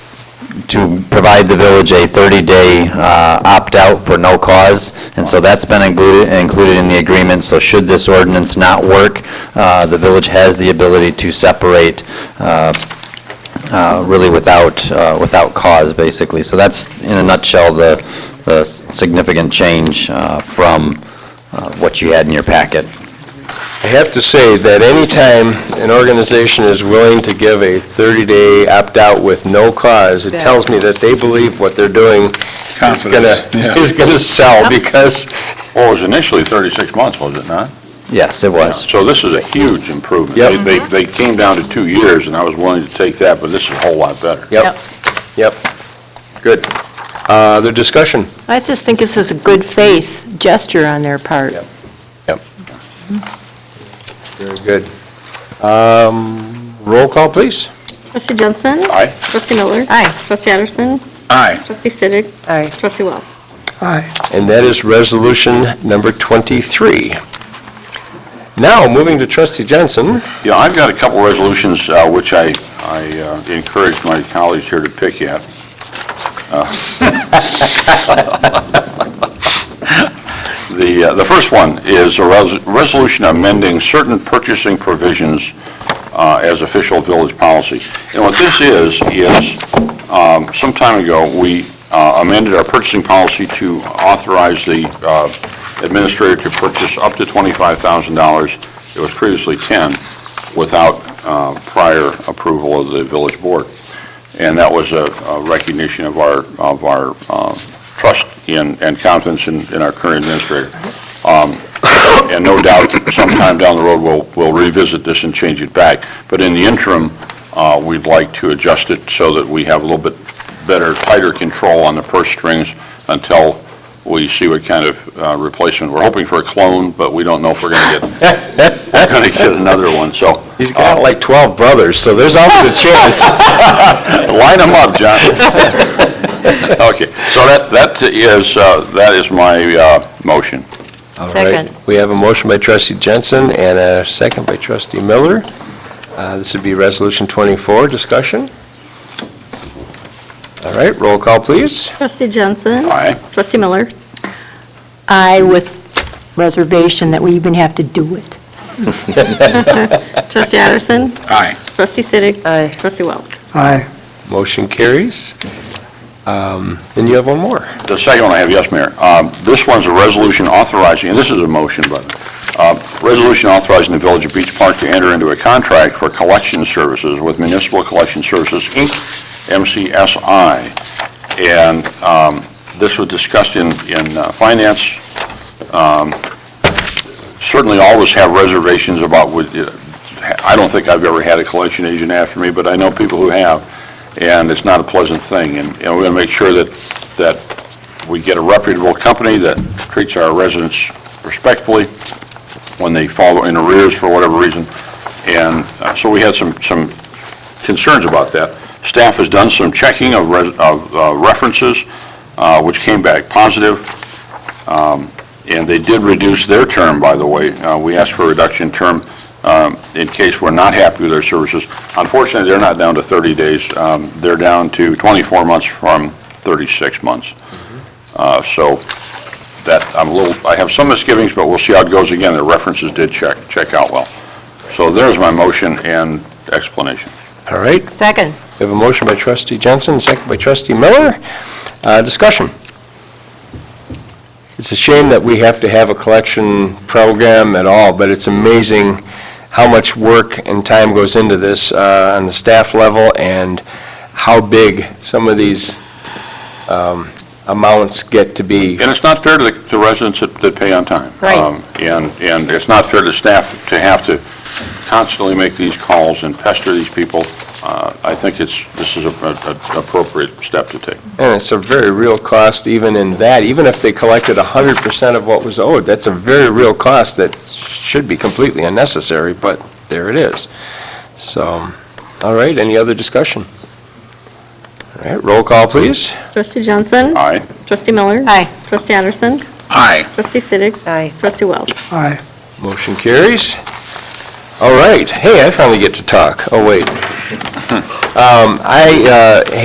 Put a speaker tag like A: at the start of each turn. A: to provide the village a 30-day uh, opt-out for no cause, and so that's been included, included in the agreement, so should this ordinance not work, uh, the village has the ability to separate uh, uh, really without, uh, without cause, basically. So that's, in a nutshell, the the significant change uh, from uh, what you had in your packet.
B: I have to say that anytime an organization is willing to give a 30-day opt-out with no cause, it tells me that they believe what they're doing is going
C: Confidence,
B: to,
C: yeah.
B: is going to sell, because
D: Well, it was initially 36 months, was it not?
A: Yes, it was.
D: So this is a huge improvement.
B: Yep.
D: They- They, they came down to two years, and I was willing to take that, but this is a whole lot better.
B: Yep, yep. Good. Uh, Other discussion?
E: I just think this is a good faith gesture on their part.
B: Yep. Very good. Um, Roll call, please.
F: Trustee Jensen?
D: Aye.
F: Trustee Miller?
E: Aye.
F: Trustee Addison?
C: Aye.
F: Trustee Siddick?
E: Aye.
F: Trustee Wells?
B: And that is resolution number 23. Now, moving to trustee Johnson.
D: Yeah, I've got a couple of resolutions uh, which I, I uh, encourage my colleagues here to pick at. Uh, The, uh, the first one is a res- resolution amending certain purchasing provisions uh, as official village policy. And what this is, is um, some time ago, we uh, amended our purchasing policy to authorize the uh, administrator to purchase up to $25,000. It was previously 10 without uh, prior approval of the village board. And that was a a recognition of our, of our uh, trust in and confidence in in our current administrator. Um, And no doubt, sometime down the road, we'll we'll revisit this and change it back. But in the interim, uh, we'd like to adjust it so that we have a little bit better, tighter control on the purse strings until we see what kind of uh, replacement. We're hoping for a clone, but we don't know if we're going to get, we're going to get another one, so. uh,
B: He's got like 12 brothers, so there's always a chance.
D: Line them up, John. Okay, so that, that is, uh, that is my uh, motion.
B: All right.
E: Second.
B: We have a motion by trustee Jensen and a second by trustee Miller. Uh, This would be resolution 24, discussion. All right, roll call, please.
F: Trustee Jensen?
D: Aye.
F: Trustee Miller?
E: I with reservation that we even have to do it.
F: Trustee Addison?
C: Aye.
F: Trustee Siddick?
E: Aye.
F: Trustee Wells?
G: Aye.
B: Motion carries. Um, Then you have one more.
D: The second one I have, yes, Mayor. Um, This one's a resolution authorizing, and this is a motion, but, uh, resolution authorizing the Village of Beach Park to enter into a contract for collection services with Municipal Collection Services, Inc., MCSI. And um, this was discussed in, in uh, Finance. Um, Certainly always have reservations about, what, uh, I don't think I've ever had a collection agent after me, but I know people who have, and it's not a pleasant thing. And and we're going to make sure that, that we get a reputable company that treats our residents respectfully when they fall in arrears for whatever reason. And uh, so we had some, some concerns about that. Staff has done some checking of res- of uh, references, uh, which came back positive. Um, And they did reduce their term, by the way. Uh, We asked for a reduction term um, in case we're not happy with their services. Unfortunately, they're not down to 30 days. Um, They're down to 24 months from 36 months. Uh, So that, I'm a little, I have some misgivings, but we'll see how it goes again. The references did check, check out well. So there's my motion and explanation.
B: All right,
E: Second.
B: we have a motion by trustee Jensen, second by trustee Miller. Uh, Discussion. It's a shame that we have to have a collection program at all, but it's amazing how much work and time goes into this uh, on the staff level and how big some of these um, amounts get to be.
D: And it's not fair to the to residents that that pay on time.
E: Right.
D: Um, And, and it's not fair to staff to have to constantly make these calls and pester these people. Uh, I think it's, this is a- a- a appropriate step to take.
B: And it's a very real cost even in that, even if they collected 100% of what was owed, that's a very real cost that should be completely unnecessary, but there it is. So, all right, any other discussion? All right, roll call, please.
F: Trustee Jensen?
D: Aye.
F: Trustee Miller?
E: Aye.
F: Trustee Addison?
C: Aye.
F: Trustee Siddick?
E: Aye.
F: Trustee Wells?
G: Aye.
B: Motion carries. All right, hey, I finally get to talk. Oh, wait. Um, I uh,